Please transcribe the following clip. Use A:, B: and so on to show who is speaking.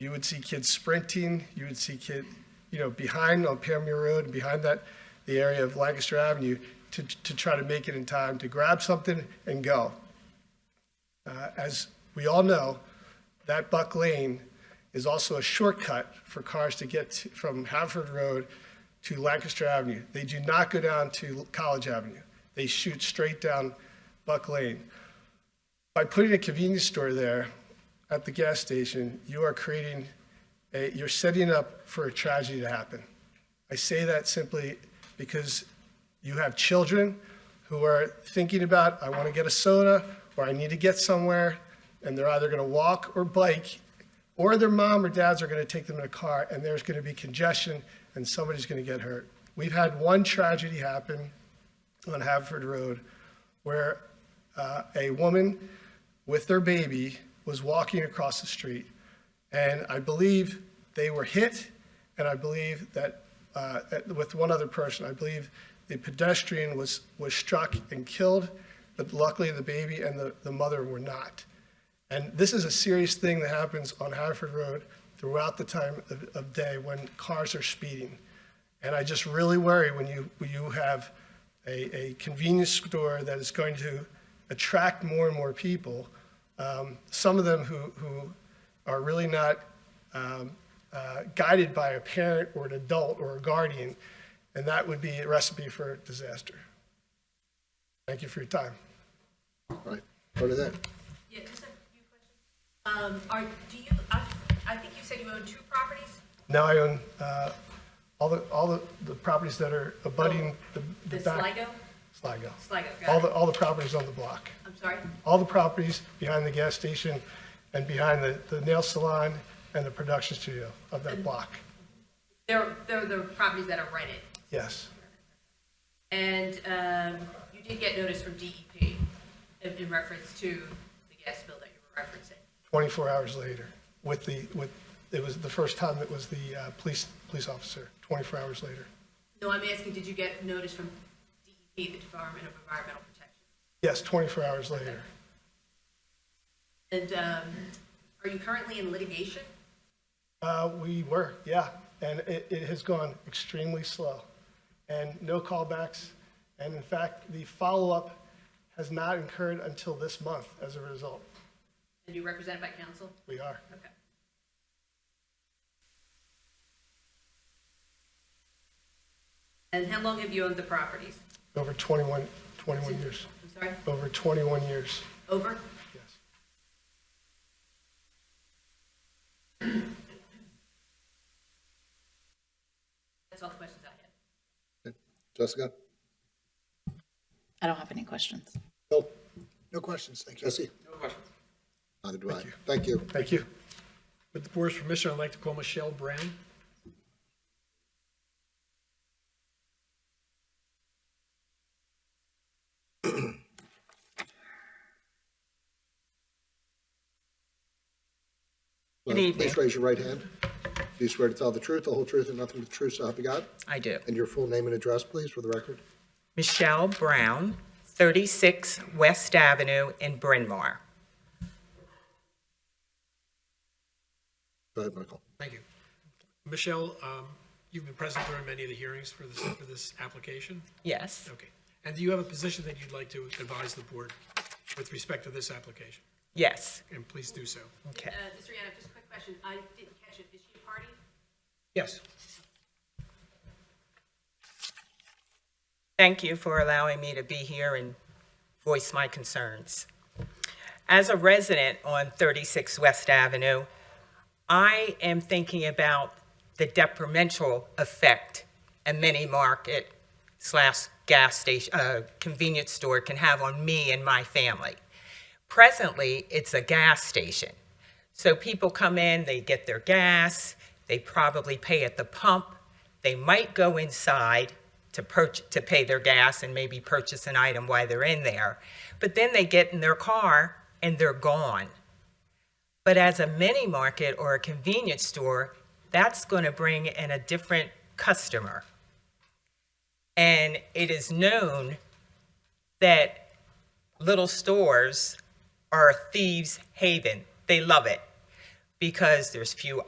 A: You would see kids sprinting, you would see kid, you know, behind on Pamir Road, behind that, the area of Lancaster Avenue, to, to try to make it in time to grab something and go. Uh, As we all know, that Buck Lane is also a shortcut for cars to get to- from Haverford Road to Lancaster Avenue. They do not go down to College Avenue. They shoot straight down Buck Lane. By putting a convenience store there at the gas station, you are creating, a- you're setting up for a tragedy to happen. I say that simply because you have children who are thinking about, I want to get a soda, or I need to get somewhere, and they're either going to walk or bike, or their mom or dads are going to take them in a car, and there's going to be congestion, and somebody's going to get hurt. We've had one tragedy happen on Haverford Road where uh, a woman with their baby was walking across the street. And I believe they were hit, and I believe that, uh, at- with one other person, I believe the pedestrian was, was struck and killed, but luckily the baby and the, the mother were not. And this is a serious thing that happens on Hartford Road throughout the time of, of day when cars are speeding. And I just really worry when you, when you have a, a convenience store that is going to attract more and more people, um, some of them who, who are really not um, uh, guided by a parent or an adult or a guardian, and that would be a recipe for disaster. Thank you for your time.
B: Right, part of that.
C: Yeah, just a few questions. Um, are, do you, I, I think you said you own two properties?
A: Now I own uh, all the, all the the properties that are abutting the
C: Oh, The
A: the back.
C: Sligo?
A: Sligo?
C: Sligo,
A: All
C: got
A: the,
C: it.
A: all the properties on the block.
C: I'm sorry?
A: All the properties behind the gas station and behind the the nail salon and the production studio of that block.
C: They're, they're the properties that are rented.
A: Yes,
C: And, um, you did get notice from DEP in, in reference to the gas bill that you were referencing.
A: 24 hours later with the, with, it was the first time it was the uh, police, police officer, 24 hours later.
C: No, I'm asking, did you get notice from DEP, the Department of Environmental Protection?
A: Yes, 24 hours later.
C: And, um, are you currently in litigation?
A: Uh, We were, yeah, and it, it has gone extremely slow, and no callbacks, and in fact, the follow-up has not occurred until this month as a result.
C: And you're represented by counsel?
A: We are.
C: Okay. And how long have you owned the properties?
A: Over 21, 21 years.
C: I'm sorry,
A: Over 21 years,
C: over?
A: yes.
C: That's all the questions I have.
B: Jessica?
D: I don't have any questions.
B: No. No questions, thank you. Jesse? No questions. Neither do I. Thank you.
A: Thank you.
E: With the board's permission, I'd like to call Michelle Brown.
B: Well,
F: evening.
B: Uh, Please raise your right hand. Do you swear to tell the truth, the whole truth, and nothing but the truth, so help you God?
F: I do.
B: And your full name and address, please, for the record.
F: Michelle Brown, 36 West Avenue in Bryn Mawr.
B: Go ahead, Michael.
E: Thank you. Michelle, um, you've been present during many of the hearings for this, for this application?
F: Yes,
E: Okay. And do you have a position that you'd like to advise the board with respect to this application?
F: yes,
E: And please do so.
F: okay.
C: Uh, Mr. Yannick, just a quick question. I didn't catch it. Is she a party?
E: Yes.
F: Thank you for allowing me to be here and voice my concerns. As a resident on 36 West Avenue, I am thinking about the detrimental effect a mini market slash gas station, uh, convenience store can have on me and my family. Presently, it's a gas station. So people come in, they get their gas, they probably pay at the pump, they might go inside to purchase, to pay their gas and maybe purchase an item while they're in there. But then they get in their car and they're gone. But as a mini market or a convenience store, that's going to bring in a different customer. And it is known that little stores are a thieves' haven. They love it because there's few